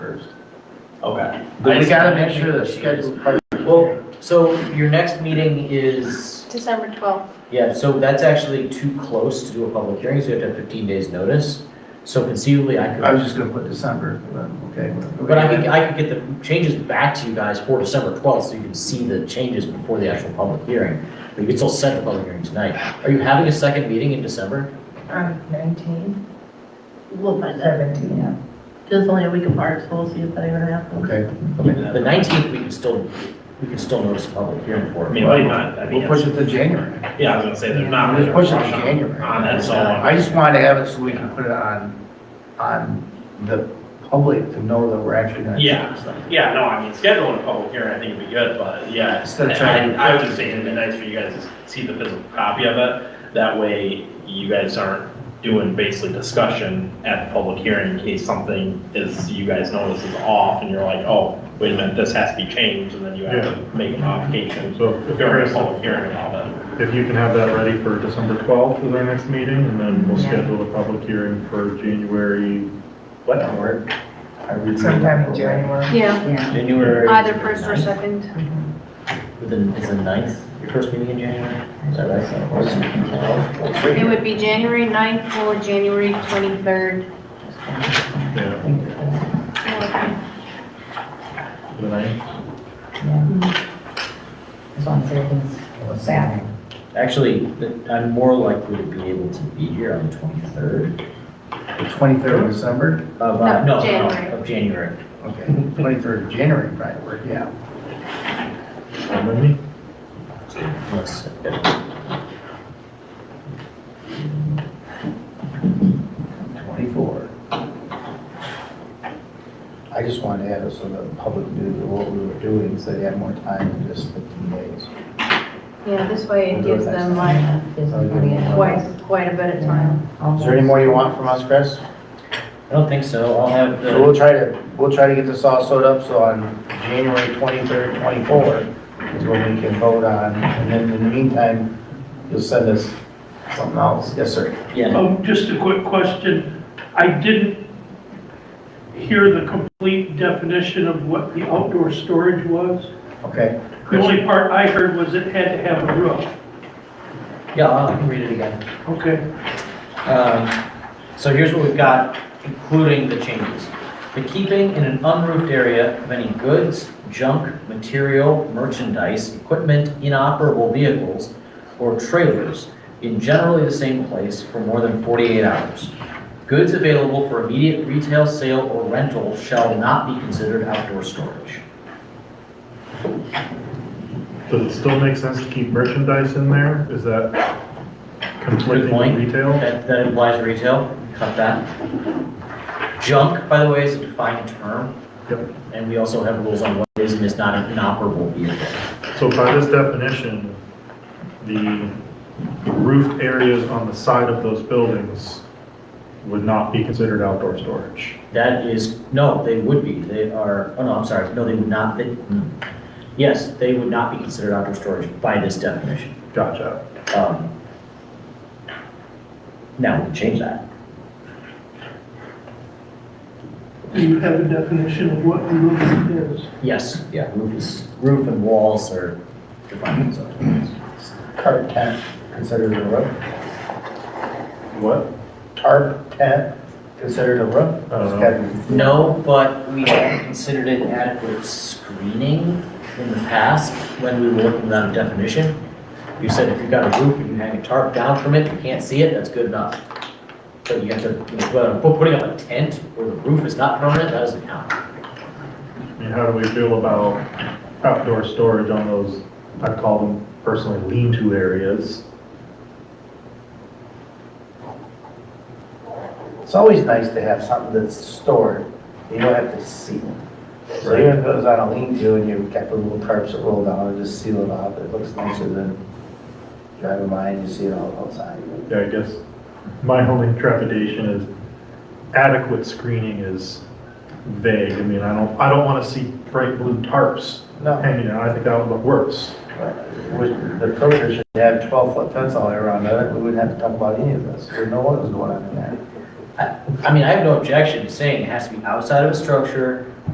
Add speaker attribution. Speaker 1: Okay.
Speaker 2: But we gotta make sure the schedule,
Speaker 3: Well, so your next meeting is,
Speaker 4: December 12th.
Speaker 3: yeah, so that's actually too close to do a public hearing, so you have to have fifteen days notice. So conceivably, I
Speaker 2: I was
Speaker 3: could,
Speaker 2: just gonna put December, but, okay. whatever.
Speaker 3: but I could, I could get the changes back to you guys for December twelfth, so you can see the changes before the actual public hearing. But you can still set the public hearing tonight. Are you having a second meeting in December?
Speaker 5: On nineteen,
Speaker 4: We'll find out.
Speaker 5: seventeen, yeah.
Speaker 4: It's only a week apart, so we'll see if that even happens.
Speaker 2: Okay,
Speaker 3: The nineteenth, we can still, we can still notice a public hearing for it.
Speaker 1: I mean, why not? I mean,
Speaker 2: we'll push it to January.
Speaker 1: yeah, I was gonna say, there's not.
Speaker 2: Just push it to
Speaker 1: really a rush on-
Speaker 2: January.
Speaker 1: On that, so.
Speaker 2: I just wanted to have it so we can put it on, on the public to know that we're actually gonna.
Speaker 1: Yeah, yeah, no, I mean, scheduling a public hearing, I think would be good, but yeah.
Speaker 2: Instead of trying-
Speaker 1: I, I was just saying, it'd be nice for you guys to see the physical copy of it. That way you guys aren't doing basically discussion at the public hearing in case something is, you guys notice is off and you're like, oh, wait a minute, this has to be changed, and then you have to make a modification.
Speaker 6: So
Speaker 1: If you're in a public hearing about it.
Speaker 6: if you can have that ready for December 12th is our next meeting, and then we'll
Speaker 5: Yeah.
Speaker 6: schedule a public hearing for January,
Speaker 2: What, or? I read-
Speaker 5: Sometime in January.
Speaker 4: Yeah,
Speaker 5: Yeah.
Speaker 3: January.
Speaker 4: either first or second.
Speaker 3: Then it's the ninth, your first meeting in January, is that right?
Speaker 4: It would be January 9th or January 23rd.
Speaker 6: yeah, the ninth.
Speaker 5: yeah.
Speaker 4: Mm-hmm.
Speaker 5: As long as everything's set.
Speaker 3: Actually, th- I'm more likely to be able to be here on the twenty-third
Speaker 2: The Twenty-third of December,
Speaker 3: of, uh, no,
Speaker 4: No,
Speaker 3: no,
Speaker 4: January.
Speaker 3: of January.
Speaker 2: okay, twenty-third of January, right, we're, yeah.
Speaker 6: And then we-
Speaker 3: Let's-
Speaker 2: Twenty-four. I just wanted to have it so that the public knew that what we were doing, so they had more time than just fifteen days.
Speaker 4: Yeah, this way it gives them like
Speaker 5: Twice.
Speaker 4: quite, quite a bit of time.
Speaker 2: Is there any more you want from us, Chris?
Speaker 3: I don't think so, I'll have
Speaker 2: So
Speaker 3: the,
Speaker 2: we'll try to, we'll try to get this all sewed up, so on January twenty-third, twenty-fourth is when we can vote on, and then in the meantime, you'll send us something else. Yes, sir.
Speaker 3: yeah,
Speaker 7: Oh, just a quick question. I didn't hear the complete definition of what the outdoor storage was.
Speaker 2: Okay.
Speaker 7: The only part I heard was it had to have a roof.
Speaker 3: yeah, I can read it again.
Speaker 7: Okay.
Speaker 3: Um, So here's what we've got, including the changes. The keeping in an unroofed area of any goods, junk, material, merchandise, equipment, inoperable vehicles, or trailers in generally the same place for more than 48 hours. Goods available for immediate retail sale or rental shall not be considered outdoor storage.
Speaker 6: Does it still make sense to keep merchandise in there? Is that conflicting
Speaker 3: point.
Speaker 6: with retail?
Speaker 3: That that implies retail, cut that. Junk, by the way, is a defined term.
Speaker 6: Yep.
Speaker 3: And we also have rules on what is and is not an inoperable vehicle.
Speaker 6: So by this definition, the roofed areas on the side of those buildings would not be considered outdoor storage.
Speaker 3: That is, no, they would be, they are, oh no, I'm sorry, no, they would not, they, hmm. yes, they would not be considered outdoor storage by this definition.
Speaker 6: Gotcha.
Speaker 3: Um, Now, we can change that.
Speaker 7: Do you have a definition of what a roof is?
Speaker 3: Yes, yeah, roof is, roof and walls are defined as outdoor storage.
Speaker 2: Tarp tent considered a roof?
Speaker 6: What?
Speaker 2: Tarp tent considered a roof?
Speaker 6: I don't know.
Speaker 2: Okay.
Speaker 3: No, but we have considered it adequate screening in the past when we were looking without a definition. You said if you've got a roof and you hang a tarp down from it, you can't see it, that's good enough. But you have to, you know, well, put- putting up a tent where the roof is not permanent, that doesn't count.
Speaker 6: I mean, how do we feel about outdoor storage on those, I call them personally lean-to areas?
Speaker 2: It's always nice to have something that's stored, you don't have to see it. So even if it was on a lean-to and you've got the little tarps that roll down and just seal it off, it looks nicer than driving by and you see it all outside.
Speaker 6: Yeah, I guess my only trepidation is adequate screening is vague. I mean, I don't, I don't want to see bright blue tarps
Speaker 2: No.
Speaker 6: hanging out. I think that would look worse.
Speaker 2: Would- The program should have twelve-foot fence all the way around it, we wouldn't have to talk about any of this, we'd know what was going on in there.
Speaker 3: I mean, I have no objection to saying it has to be outside of a structure